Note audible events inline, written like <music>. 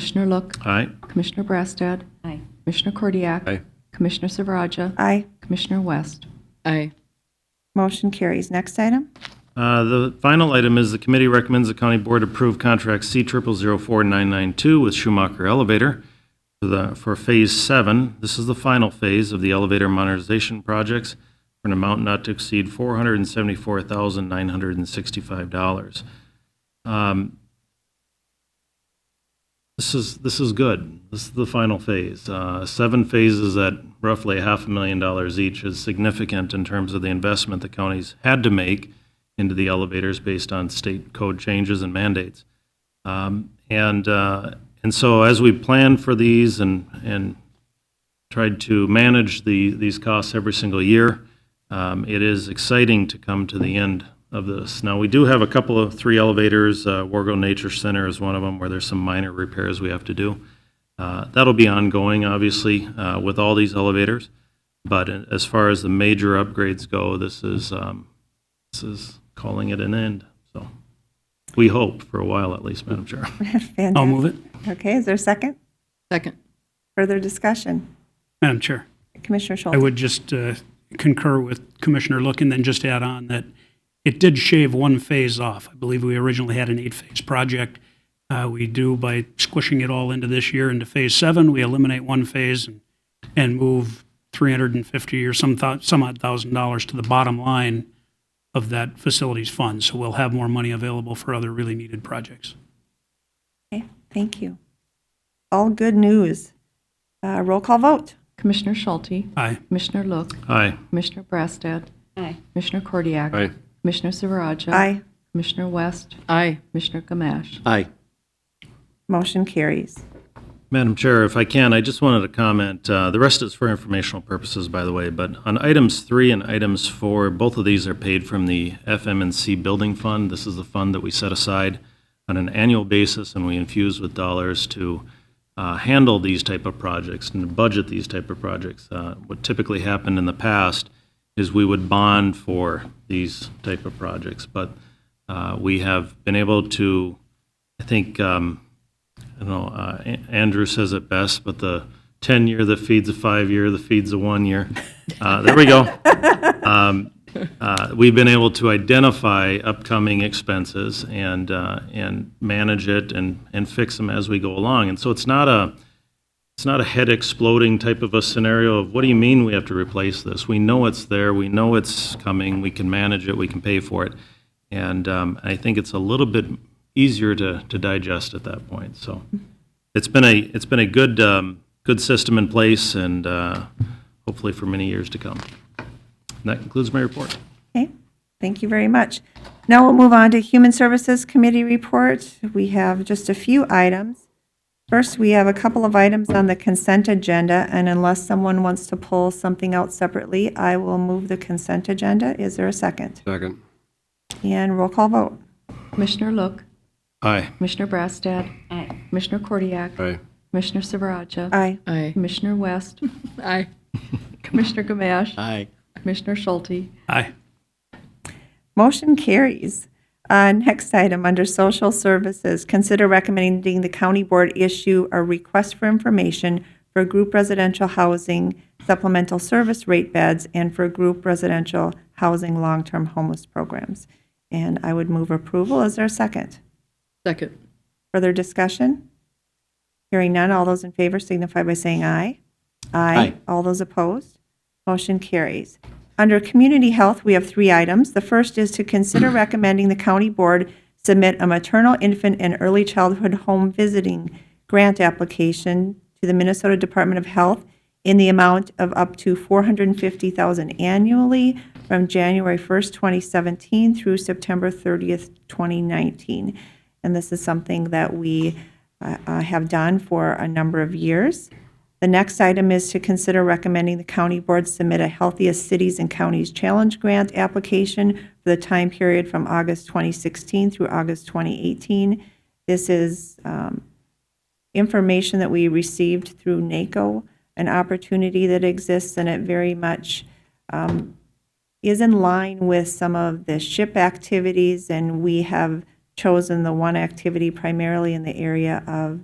Commissioner Look, Aye. Commissioner Brassad, Aye. Commissioner Cordiak. Aye. Commissioner Silveraja, Aye. Commissioner West. Aye. Motion carries. Next item. <laughs> Uh, The final item is the committee recommends the county board approve contract C triple zero four nine nine two with Schumacher Elevator for the, for Phase Seven. This is the final phase of the elevator modernization projects for an amount not to exceed four hundred and seventy-four thousand nine hundred and sixty-five dollars. This is, this is good. This is the final phase. Uh, Seven phases at roughly half a million dollars each is significant in terms of the investment the counties had to make into the elevators based on state code changes and mandates. Um, And, uh, and so as we plan for these and, and tried to manage the, these costs every single year. Um, It is exciting to come to the end of this. Now, we do have a couple of, three elevators, uh, Wargo Nature Center is one of them, where there's some minor repairs we have to do. Uh, That'll be ongoing, obviously, uh, with all these elevators, but as far as the major upgrades go, this is, um, this is calling it an end, so. We hope, for a while at least, Madam Chair. I'll move it. Okay, is there a second? Second. Further discussion? Madam Chair, Commissioner I Schultz? would just uh, concur with Commissioner Look and then just add on that it did shave one phase off. I believe we originally had an eight-phase project. Uh, We do, by squishing it all into this year into Phase 7, we eliminate one phase and- and move 350 or some thou- some odd thousand dollars to the bottom line of that facilities fund. So we'll have more money available for other really needed projects. Okay, Thank you. All good news. Uh, Roll call vote. Commissioner Schulte, Aye. Commissioner Look, Aye. Commissioner Brassad, Aye. Commissioner Cordiak. Aye. Commissioner Silveraja. Aye. Commissioner West, Aye. Commissioner Gamache. Aye. Motion carries. Madam Chair, if I can, I just wanted to comment, uh, the rest is for informational purposes, by the way, but on items three and items four, both of these are paid from the FMNC Building Fund. This is the fund that we set aside on an annual basis, and we infuse with dollars to uh, handle these type of projects and to budget these type of projects. Uh, What typically happened in the past is we would bond for these type of projects, but uh, we have been able to, I think, um, I don't know, uh, A- Andrew says it best, but the 10 year that feeds a five year, that feeds a one year. Uh, there we go. Um, uh, we've been able to identify upcoming expenses and, uh, and manage it and, and fix them as we go along. And so it's not a, it's not a head exploding type of a scenario of what do you mean we have to replace this? We know it's there, we know it's coming, we can manage it, we can pay for it. And um, I think it's a little bit easier to, to digest at that point. So it's been a, it's been a good, um, good system in place and uh, hopefully for many years to come. And that concludes my report. Okay, thank you very much. Now we'll move on to Human Services Committee report. We have just a few items. First, we have a couple of items on the consent agenda, and unless someone wants to pull something out separately, I will move the consent agenda. Is there a second? Second. And roll call vote. Commissioner Look, Aye. Commissioner Brassad. Aye. Commissioner Cordiak. Aye. Commissioner Silveraja. Aye. Aye. Commissioner West, <laughs> Aye. Commissioner Gamache, Aye. Commissioner Schulte. Aye. Motion carries. Uh, Next item, under social services, consider recommending the county board issue a request for information for group residential housing supplemental service rate beds and for group residential housing long-term homeless programs. And I would move approval. Is there a second? Second. Further discussion? Hearing none, all those in favor signify by saying aye. Aye. All those opposed? Motion carries. Under Community Health, we have three items. The first is to consider recommending the county board submit a maternal, infant, and early childhood home visiting grant application to the Minnesota Department of Health in the amount of up to $450,000 annually from January 1st, 2017 through September 30th, 2019. And this is something that we uh, uh, have done for a number of years. The next item is to consider recommending the county board submit a Healthiest Cities and Counties Challenge Grant application for the time period from August 2016 through August 2018. This is um, information that we received through NACO, an opportunity that exists, and it very much um, is in line with some of the SHIP activities, and we have chosen the one activity primarily in the area of